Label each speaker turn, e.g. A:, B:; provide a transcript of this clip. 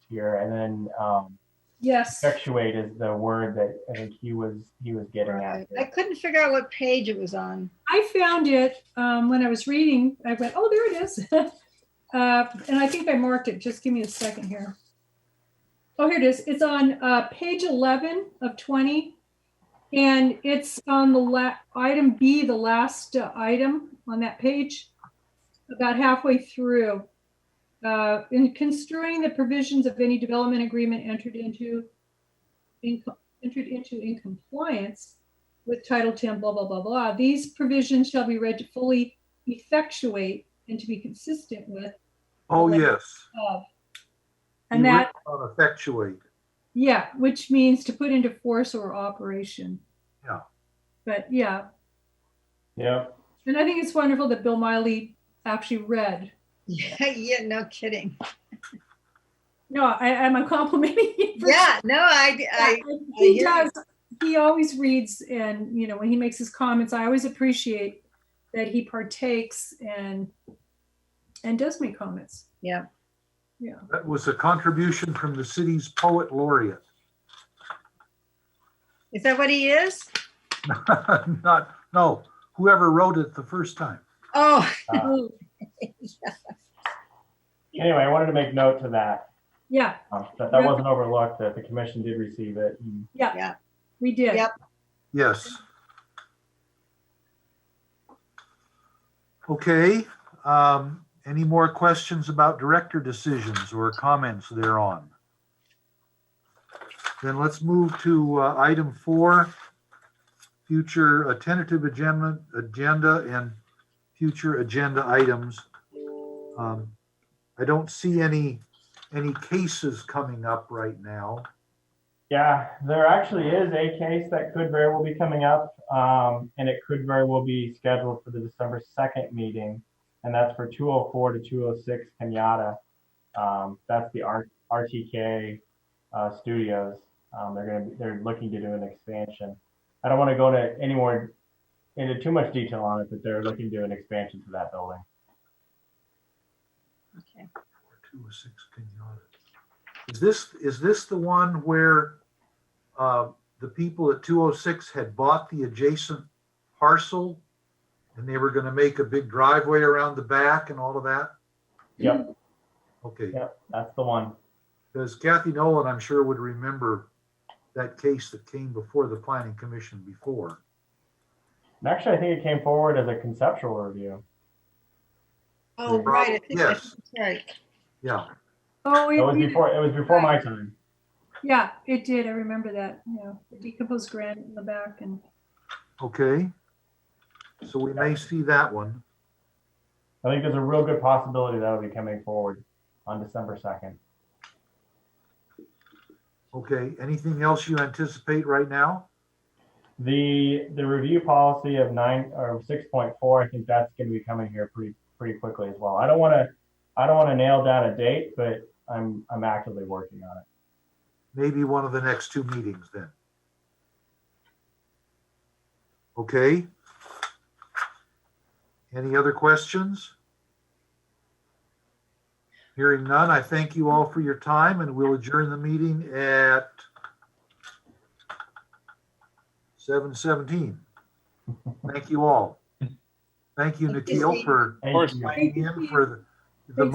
A: here, and then um,
B: Yes.
A: effectuate is the word that I think he was he was getting
B: Right.
A: at.
B: I
A: there.
B: couldn't figure out what page it was on.
C: I found it um, when I was reading. I went, oh, there it is. uh, and I think I marked it. Just give me a second here. Oh, here it is. It's on uh, page 11 of 20. And it's on the la- item B, the last uh, item on that page, about halfway through. Uh, in construing the provisions of any development agreement entered into, in, entered into in compliance, with Title 10, blah, blah, blah, blah. These provisions shall be read to fully effectuate and to be consistent with
D: Oh, yes.
C: of. And
D: You
C: that,
D: wrote about Effectuate.
C: yeah, which means to put into force or operation.
D: Yeah.
C: But yeah,
A: Yep.
C: and I think it's wonderful that Bill Miley actually read.
B: Yeah, yeah, no kidding.
C: No, I, am a complimenting him. for-
B: Yeah, no, I, I,
C: he
B: hear
C: does. He always reads, and you know, when he makes his comments, I always appreciate that he partakes and and does make comments.
B: yeah.
D: That was a contribution from the city's poet laureate.
B: Is that what he is?
D: Not, no, whoever wrote it the first time.
B: Oh,
A: Uh,
C: Oh,
A: anyway, I wanted to make note to that.
C: yeah,
A: uh, that that wasn't overlooked. That the commission did receive it. and-
C: we did.
B: Yep.
D: Yes. Okay, um, any more questions about director decisions or comments thereon? Then let's move to, uh, item four, future uh, tentative agenda, agenda and future agenda items. Um, I don't see any, any cases coming up right now.
A: Yeah, there actually is a case that could very well be coming up, um, and it could very well be scheduled for the December second meeting, and that's for two oh four to two oh six Kenyatta. Um, that's the R- RTK uh, studios. Um, they're gonna be, they're looking to do an expansion. I don't want to go to any more into too much detail on it, but they're looking to do an expansion to that building.
B: okay.
D: Two oh six Kenyatta. Is this, is this the one where uh, the people at two oh six had bought the adjacent parcel? And they were gonna make a big driveway around the back and all of that?
A: Yep,
D: Okay,
A: yep, that's the one.
D: because Kathy Nolan, I'm sure would remember that case that came before the planning commission before.
A: And actually, I think it came forward as a conceptual review.
B: Oh, right. I think
D: Yes.
B: that's right.
D: Yeah,
C: Oh,
A: It
C: it,
A: was
C: we-
A: before it was before my time.
C: yeah, it did. I remember that. Yeah, the decomposed granite in the back, and
D: okay. So we may see that one.
A: I think there's a real good possibility that'll be coming forward on December 2nd.
D: Okay, anything else you anticipate right now?
A: The the review policy of nine or 6.4, I think that's going to be coming here pretty pretty quickly as well. I don't want to I don't want to nail down a date, but I'm I'm actively working on it.
D: maybe one of the next two meetings then. Okay? Any other questions? Hearing none, I thank you all for your time and we'll adjourn the meeting at 7:17. Thank you all. Thank you,
B: Thank you,
D: Nikhil,
B: Steve.
D: for
A: Thank
E: course.
A: you.
D: coming in for